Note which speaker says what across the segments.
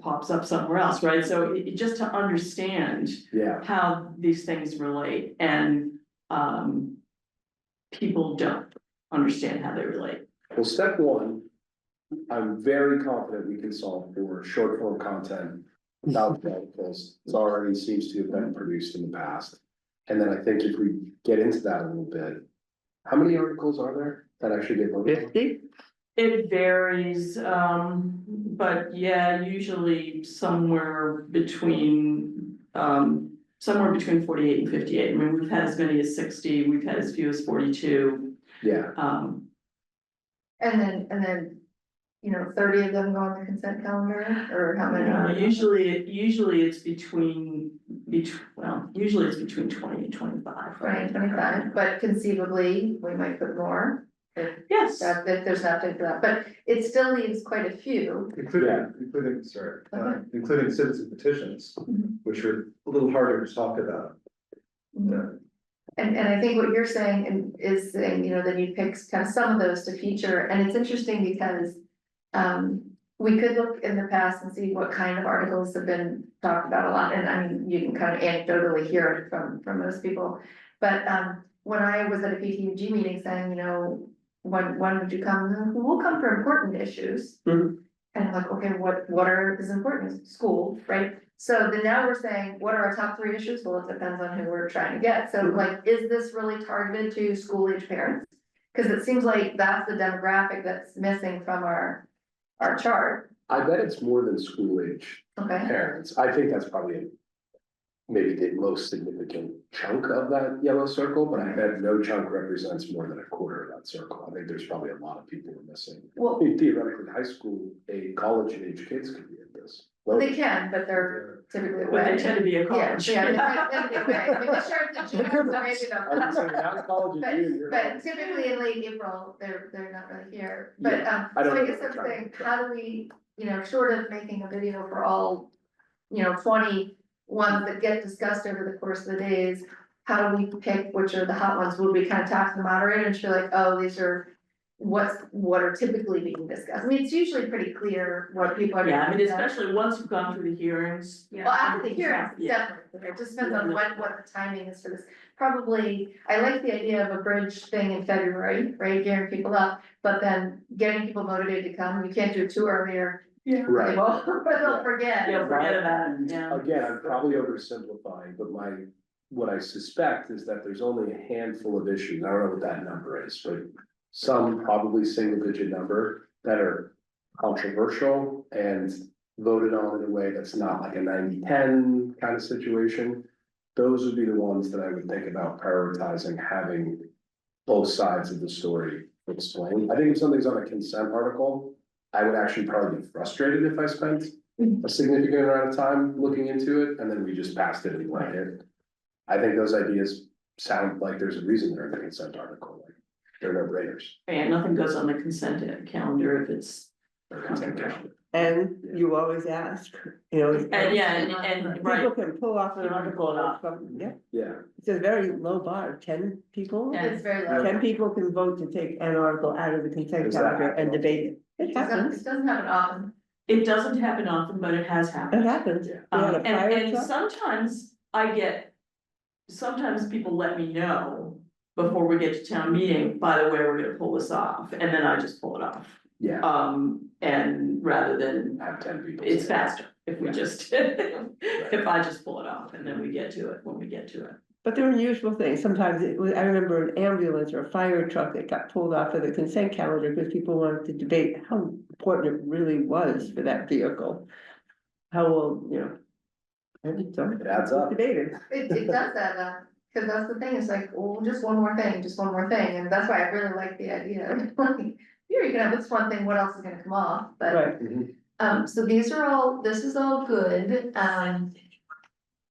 Speaker 1: pops up somewhere else, right? So it, it- just to understand
Speaker 2: yeah,
Speaker 1: how these things relate and, um, people don't understand how they relate.
Speaker 2: well, step one. I'm very confident we can solve for short form content without articles, it's already seems to have been produced in the past. And then I think if we get into that a little bit, how many articles are there that actually get voted on?
Speaker 3: Fifty?
Speaker 1: It varies, um, but yeah, usually somewhere between, um, somewhere between forty-eight and fifty-eight. I mean, we've had as many as sixty, we've had as few as forty-two,
Speaker 2: Yeah,
Speaker 1: um,
Speaker 4: And then, and then, you know, thirty of them go on the consent calendar, or how many?
Speaker 1: Uh, usually, usually it's between, between, well, usually it's between twenty and twenty-five, right?
Speaker 4: Twenty, twenty-five, but conceivably, we might put more,
Speaker 1: Yes,
Speaker 4: that, that there's an update for that, but it still leaves quite a few.
Speaker 2: Yeah.
Speaker 5: Including, including, sorry, uh,
Speaker 4: Okay.
Speaker 5: including citizen petitions,
Speaker 4: Mhm.
Speaker 5: which are a little harder to talk about. Yeah.
Speaker 4: And, and I think what you're saying and is saying, you know, then you pick kind of some of those to feature, and it's interesting because. Um, we could look in the past and see what kind of articles have been talked about a lot, and I mean, you can kind of anecdotally hear it from, from most people. But, um, when I was at a PTUG meeting saying, you know, when, when would you come, And, we'll come for important issues.
Speaker 1: Mhm.
Speaker 4: And I'm like, okay, what, what are, is important, school, right? So then now we're saying, what are our top three issues? Well, it depends on who we're trying to get. So
Speaker 1: Mhm.
Speaker 4: like, is this really targeted to school age parents? Cause it seems like that's the demographic that's missing from our, our chart,
Speaker 2: I bet it's more than school age
Speaker 4: okay?
Speaker 2: parents, I think that's probably. Maybe the most significant chunk of that yellow circle, but I bet no chunk represents more than a quarter of that circle, I think there's probably a lot of people who are missing. I
Speaker 4: Well,
Speaker 2: mean, theoretically, high school, a college age kids could be in this. Well,
Speaker 4: they can, but they're typically
Speaker 1: but they
Speaker 4: away.
Speaker 1: tend to be a
Speaker 4: Yeah,
Speaker 1: college.
Speaker 4: yeah, they tend to be away. I mean, the sheriff, the sheriff, so maybe
Speaker 2: I would
Speaker 4: not.
Speaker 2: say not college
Speaker 4: But,
Speaker 2: and junior.
Speaker 4: but typically in late April, they're, they're not really here, but, um,
Speaker 2: I
Speaker 4: so
Speaker 2: don't
Speaker 4: I
Speaker 2: know
Speaker 4: guess
Speaker 2: what
Speaker 4: I'm
Speaker 2: they're
Speaker 4: saying,
Speaker 2: trying to-
Speaker 4: how do we, you know, short of making a video for all. You know, twenty ones that get discussed over the course of the days, how do we pick which are the hot ones, would we kind of talk to the moderator and she'll like, oh, these are. What's, what are typically being discussed, I mean, it's usually pretty clear what people are.
Speaker 1: Yeah, I mean,
Speaker 4: discussing.
Speaker 1: especially once you've gone through the hearings.
Speaker 4: Well, after the hearings, it's
Speaker 1: Yeah,
Speaker 4: definitely, it just depends on what, what the timing is for this. Probably, I like the idea of a bridge thing in February, right, gearing people up, but then getting people motivated to come, you can't do it too early or they
Speaker 2: Right,
Speaker 4: won't, or they'll
Speaker 2: Yeah.
Speaker 4: forget.
Speaker 1: yeah, forget about it, yeah.
Speaker 2: again, I'm probably oversimplifying, but my, what I suspect is that there's only a handful of issues, I don't know what that number is, but. Some probably single digit number that are controversial and voted on in a way that's not like a 90-10 kind of situation. Those would be the ones that I would think about prioritizing having both sides of the story explained. I think if something's on a consent article, I would actually probably be frustrated if I spent a significant amount of time looking into it and then we just passed it and went it. I think those ideas sound like there's a reason they're in the consent article, like they're no brainers.
Speaker 1: And nothing goes on the consent calendar if it's,
Speaker 2: They're consent calendar.
Speaker 3: And you always ask, you know.
Speaker 1: and yeah, and, and, right,
Speaker 3: People can pull off an
Speaker 1: You can
Speaker 3: article
Speaker 1: pull it off.
Speaker 3: from, yeah,
Speaker 2: Yeah,
Speaker 3: it's a very low bar, ten people.
Speaker 1: Yeah.
Speaker 4: It's very low.
Speaker 3: Ten people can vote to take an article out of the consent
Speaker 2: Is that
Speaker 3: calendar and
Speaker 2: happening?
Speaker 3: debate it. It
Speaker 4: It doesn't,
Speaker 3: happens,
Speaker 4: it doesn't happen often.
Speaker 1: it doesn't happen often, but it has happened.
Speaker 3: it happens.
Speaker 2: Yeah.
Speaker 3: We
Speaker 1: Um,
Speaker 3: had a
Speaker 1: and,
Speaker 3: fire
Speaker 1: and
Speaker 3: truck.
Speaker 1: sometimes I get, sometimes people let me know before we get to town meeting, by the way, we're gonna pull this off, and then I just pull it off.
Speaker 2: yeah,
Speaker 1: Um, and rather than,
Speaker 2: have ten people.
Speaker 1: it's
Speaker 2: say that.
Speaker 1: faster if we just, if I just pull it off and then we get to it when we get to it.
Speaker 3: But they're unusual things. Sometimes it was, I remember an ambulance or a fire truck that got pulled off of the consent calendar because people wanted to debate how important it really was for that vehicle. How old, you know. And it's all-
Speaker 2: It adds up.
Speaker 3: Debated.
Speaker 4: It, it does that, uh, cause that's the thing, it's like, well, just one more thing, just one more thing, and that's why I really like the idea. of, like, Here, you can have this one thing, what else is gonna come off, but.
Speaker 3: Right,
Speaker 4: Um, so these are all, this is all good, um.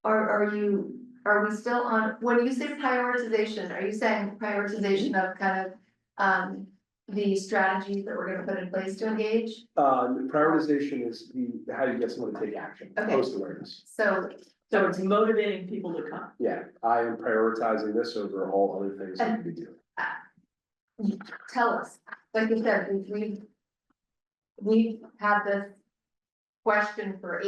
Speaker 4: Are, are you, are we still on, when you say prioritization, are you saying prioritization of kind of, um. The strategies that we're gonna put in place to engage,
Speaker 2: Uh, prioritization is the, how you get someone to take action,
Speaker 4: Okay.
Speaker 2: post awareness.
Speaker 4: so,
Speaker 1: So it's motivating people to come.
Speaker 2: Yeah, I am prioritizing this over all other things that we do.
Speaker 4: tell us, like you said, we- we've. We've had this question for